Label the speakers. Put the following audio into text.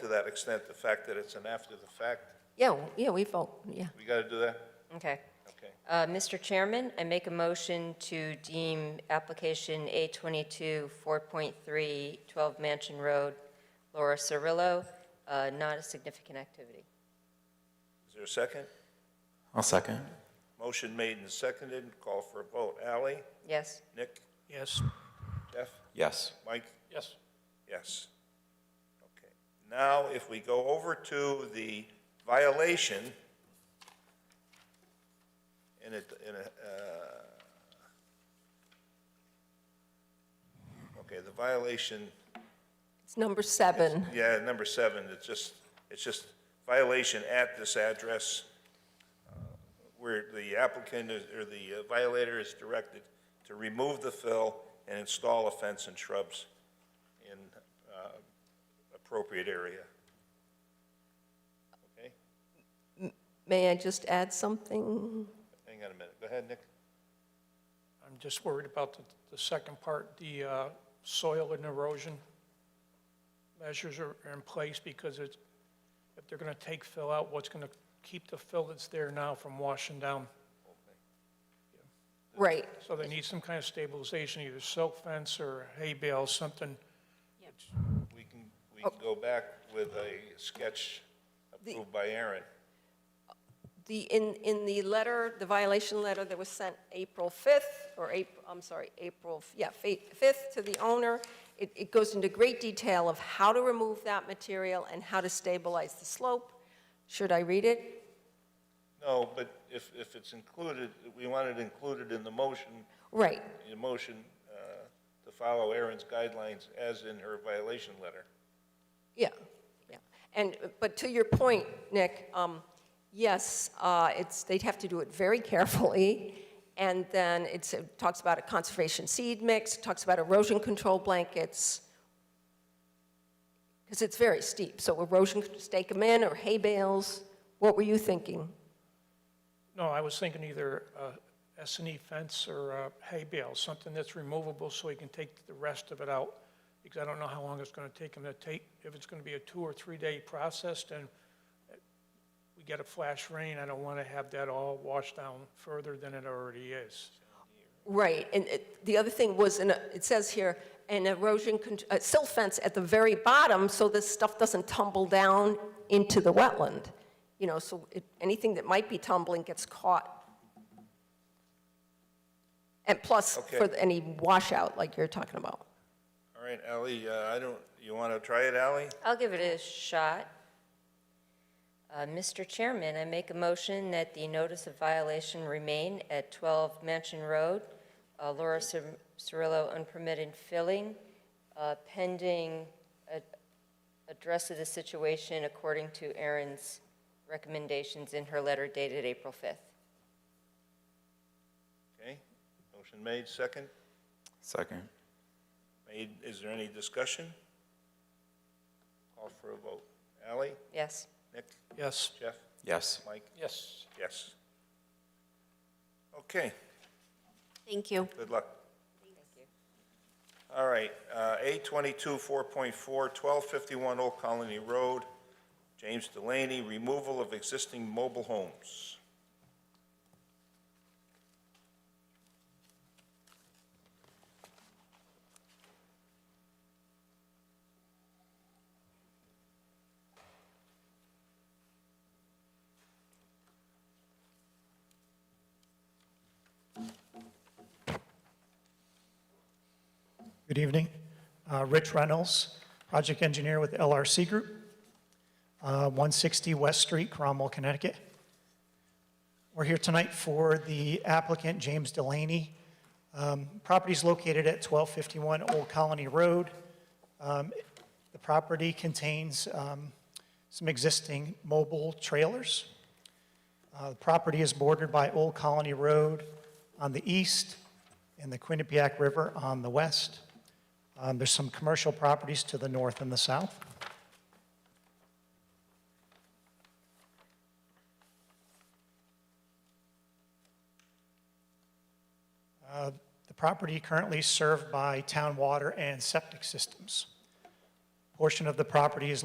Speaker 1: to that extent, the fact that it's an after the fact,
Speaker 2: Yeah, w- yeah, we vote, yeah.
Speaker 1: we got to do that?
Speaker 3: Okay.
Speaker 1: Okay.
Speaker 3: Uh, Mr. Chairman, I make a motion to deem application A22, 4.3, 12 Mansion Road, Laura Cirillo, uh, not a significant activity.
Speaker 1: Is there a second?
Speaker 4: I'll second.
Speaker 1: Motion made and seconded, call for a vote. Ally?
Speaker 3: Yes?
Speaker 1: Nick?
Speaker 5: Yes.
Speaker 1: Jeff?
Speaker 4: Yes.
Speaker 1: Mike?
Speaker 5: Yes.
Speaker 1: Yes. Okay. Now, if we go over to the violation in a, in a, uh, okay, the violation,
Speaker 2: It's number seven.
Speaker 1: yeah, number seven, it's just, it's just violation at this address uh, where the applicant is- or the uh, violator is directed to remove the fill and install a fence and shrubs in uh, appropriate area. Okay,
Speaker 2: May I just add something?
Speaker 1: hang on a minute, go ahead, Nick.
Speaker 5: I'm just worried about the, the second part, the uh, soil and erosion measures are are in place because it's, if they're going to take fill out, what's going to keep the fill that's there now from washing down?
Speaker 2: Right,
Speaker 5: So they need some kind of stabilization, either silk fence or hay bale, something.
Speaker 1: We can, we can go back with a sketch approved by Aaron.
Speaker 2: the, in, in the letter, the violation letter that was sent April 5th, or April, I'm sorry, April, yeah, fa- 5th to the owner, it, it goes into great detail of how to remove that material and how to stabilize the slope. Should I read it?
Speaker 1: No, but if, if it's included, we want it included in the motion
Speaker 2: Right,
Speaker 1: the motion uh, to follow Erin's guidelines as in her violation letter.
Speaker 2: yeah, yeah. And, uh, but to your point, Nick, um, yes, uh, it's, they'd have to do it very carefully, and then it's, it talks about a conservation seed mix, it talks about erosion control blankets, because it's very steep, so erosion, stake them in, or hay bales, what were you thinking?
Speaker 5: No, I was thinking either uh, S and E fence or uh, hay bale, something that's removable so he can take the rest of it out. Because I don't know how long it's going to take him to take, if it's going to be a two or three-day process, then uh, we get a flash rain, I don't want to have that all washed down further than it already is.
Speaker 2: Right, and it- the other thing was, in a- it says here, an erosion, con- a silt fence at the very bottom, so this stuff doesn't tumble down into the wetland, you know, so it- anything that might be tumbling gets caught. And plus, for
Speaker 1: Okay.
Speaker 2: any washout like you're talking about.
Speaker 1: All right, Ally, uh, I don't, you want to try it, Ally?
Speaker 3: I'll give it a shot. Uh, Mr. Chairman, I make a motion that the notice of violation remain at 12 Mansion Road, uh, Laura Cir- Cirillo unpermitted filling, uh, pending a- address of the situation according to Erin's recommendations in her letter dated April 5th.
Speaker 1: Okay, motion made, second.
Speaker 4: Second.
Speaker 1: Made, is there any discussion? Call for a vote. Ally,
Speaker 3: Yes.
Speaker 1: Nick,
Speaker 5: Yes?
Speaker 1: Jeff,
Speaker 4: Yes.
Speaker 1: Mike?
Speaker 5: Yes.
Speaker 1: Yes. Okay,
Speaker 6: Thank you.
Speaker 1: good luck. All right, uh, A22 4.4, 1251 Old Colony Road, James Delaney, removal of existing mobile homes.
Speaker 7: Good evening. Uh, Rich Reynolds, project engineer with LRC Group, uh, 160 West Street, Cromwell, Connecticut. We're here tonight for the applicant, James Delaney. Um, Property's located at 1251 Old Colony Road. Um, The property contains um, some existing mobile trailers. Uh, The property is bordered by Old Colony Road on the east and the Quinnipiac River on the west. Um, There's some commercial properties to the north and the south. Uh, The property currently is served by town water and septic systems. Portion of the property is